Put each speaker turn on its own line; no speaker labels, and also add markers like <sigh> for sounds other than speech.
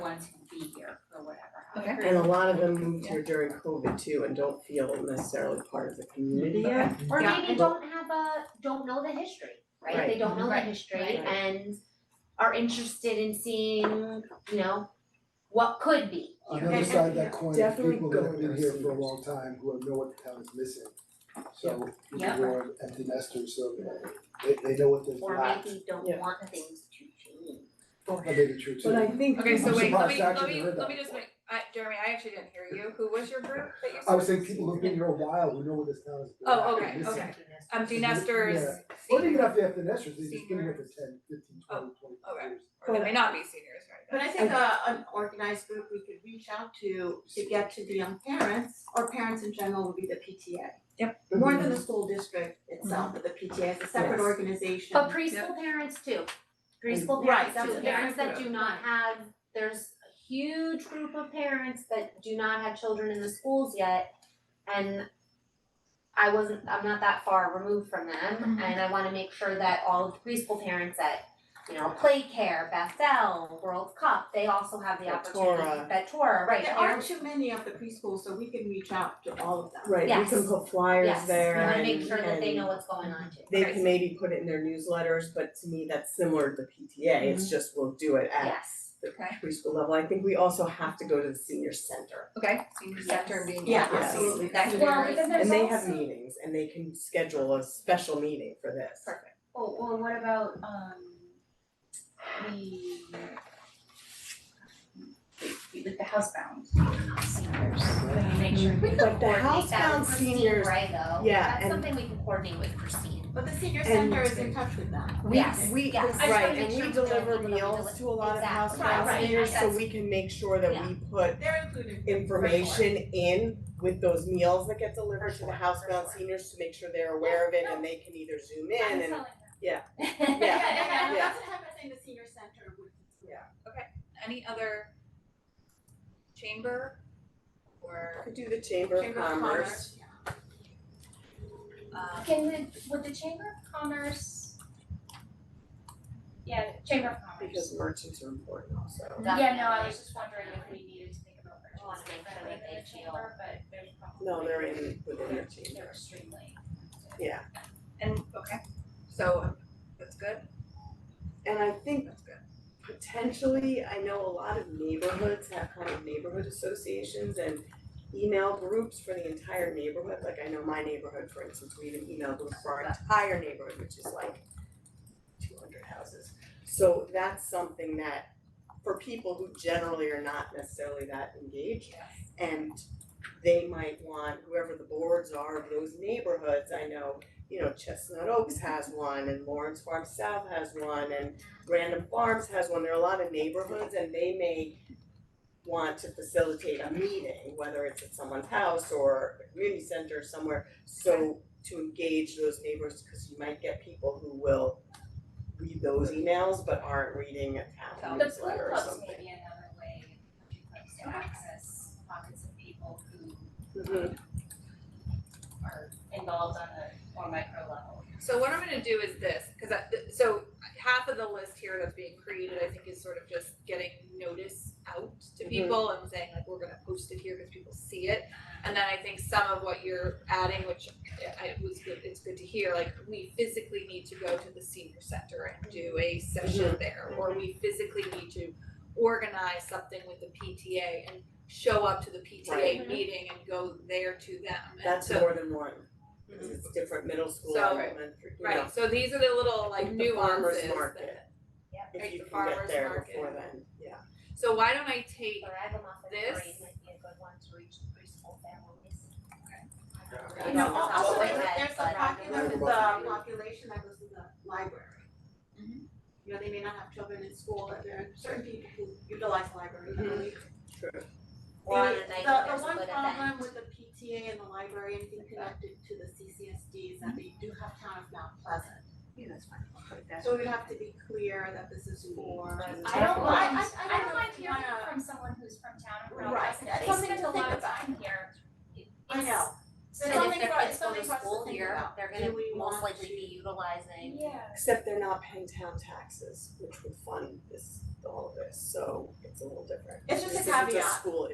Okay.
And a lot of them moved here during COVID too and don't feel necessarily part of the community yet.
Or
Yeah.
maybe
Well-
don't have a, don't know the history, right? They
Right.
don't know the
Right.
history
Right.
and are interested in seeing, you know, what could be.
On the other side of that coin, there's
Definitely
people that have
go
been
there,
here for a
seniors.
long time who have know what the town is missing. So, you
Yeah.
know, we're empty nesters, so they they know what there's
Or
not,
maybe don't
Yeah.
want things to change.
that may be true too.
But I think.
Okay, so
I'm
wait, let
surprised
me,
I
let
actually
me,
heard
let
that
me just make, I, Jeremy, I actually didn't hear you, who was your group that you said?
I would say people who've been here a while, who know what this town is about.
Oh, okay, okay. Empty
Yeah.
nesters,
Or they
seniors,
could have the empty nesters, they've just been here for 10, 15, 20, 25
Oh, okay.
years.
or they may not be seniors, right?
But I think a an organized group we could reach out to to get to the young parents or parents in general would be the PTA.
Yep.
More than the school district itself, but the PTA is a separate
Yes.
organization.
But preschool parents too. Preschool
Right,
parents, that's
so
the
yeah.
parents that do not have, there's a huge group of parents that do not have children in the schools yet. And I wasn't, I'm not that far removed from them
Mhm.
and I wanna make sure that all of the preschool parents at, you know, Play Care, Bethel, World Cup, they also have the opportunity,
Betora.
Betora, right,
There aren't
parents-
too many of the preschools, so we can reach out to all of them.
Right, we can
Yes.
put flyers
yes,
there
we wanna
and
make sure that they
and
know what's going on too.
They
Okay.
can maybe put it in their newsletters, but to me, that's similar to the PTA, it's just we'll do it at
Yes,
the
Okay.
preschool level, I think we also have to go to the senior center.
Okay, senior center being.
Yeah,
seniors,
absolutely.
That could be
Well,
really-
because there's
And they
also-
have meetings and they can schedule a special meeting for this.
Perfect.
Well, oh, well, what about um the like the housebound seniors, like make sure we
But the
coordinate that
housebound
with Christine
seniors-
Brago,
yeah,
that's
and-
something we can coordinate
<laughs>
with Christine.
But the senior
And-
center is in touch with them.
We-
Yes,
We,
yes.
I just wanna
right,
make
and
sure
we
we
deliver
know we deliver
meals to a lot of
exactly.
housebound
Right, right,
seniors, so
yes.
we can make sure that
Yeah.
we put
They're included.
information in with those meals that get delivered to the
sure, for
housebound
sure.
seniors to make sure they're aware of it and they can either zoom in and,
Yeah,
yeah.
<laughs>
and
Yeah.
that's the type of thing the senior center would consider.
Any other chamber or,
Could do the chamber of
Chamber of
commerce.
Commerce, yeah.
um,
Can the, would the Chamber of Commerce? Yeah, Chamber of Commerce.
Because merchants are important also.
Yeah, no, I was just wondering if we needed to think about
I wanna make
purchasing
sure
better
that
than
they
the chamber, but there's probably.
No, they're in within their team.
They're extremely.
Yeah,
and, okay, so that's good,
and I think
that's good.
potentially, I know a lot of neighborhoods have kind of neighborhood associations and email groups for the entire neighborhood, like I know my neighborhood, for instance, we have an email group for our entire neighborhood, which is like two hundred houses. So that's something that for people who generally are not necessarily that engaged and they might want whoever the boards are of those neighborhoods, I know, you know, Chestnut Oaks has one and Lawrence Farm South has one and Random Farms has one, there are a lot of neighborhoods and they may want to facilitate a meeting, whether it's at someone's house or a community center or somewhere, so to engage those neighbors, cause you might get people who will read those emails but aren't reading a town
The pool
newsletter or
clubs may
something.
be another way for the clubs to access pockets of people who
Mhm.
are involved on a more micro level.
So what I'm gonna do is this, cause I, th- so half of the list here that's being created, I think is sort of just getting notice out to
Mhm.
people and saying like, we're gonna post it here because people see it. And then I think some of what you're adding, which I it was good, it's good to hear, like we physically need to go to the senior center and do a session there. Or we physically need to organize something with the PTA and show up to the PTA
Right.
meeting and go there to them. And
That's
so- Mm-hmm.
more than one, cause it's different middle school,
So-
elementary, you know,
Right, so these are the little like
Like the farmer's
nuances
market.
that-
if
like
you
the
can get
farmer's
there
market.
before then, yeah.
so why don't I take,
But I have a muffin
This-
parade might be a good one to reach the preschool families.
Okay.
You know,
That's
al- also
what
there's
I read,
there's
but
a
I don't
popular,
know.
the
Yeah.
population that goes to the library.
Mhm.
You know, they may not have children in school, but there are certain people who utilize the library heavily.
Or on a
The-
night
the-
that there's a
The one
good
problem
event.
with the PTA and the library and being connected to the CCSD is that they do have town of Mount Pleasant.
Yeah, that's fine, I'll put it down.
So we have to be clear that this is for.
I don't
Well, I-
mind,
I- I
I don't
know
mind
if you
hearing
wanna-
from someone who's from town and from
Right,
us,
that's
they
something
spend
to
a lot
think
of time here.
I know,
So
It's
that
something
if their
for- it's
kids go
something
to
for us to
school
think
here,
about.
they're
Do
gonna
we
most
want
likely
to-
be utilizing.
Yeah.
Except they're not paying town taxes, which would fund this, all of this, so it's a little different.
It's just a
This isn't
caveat.
school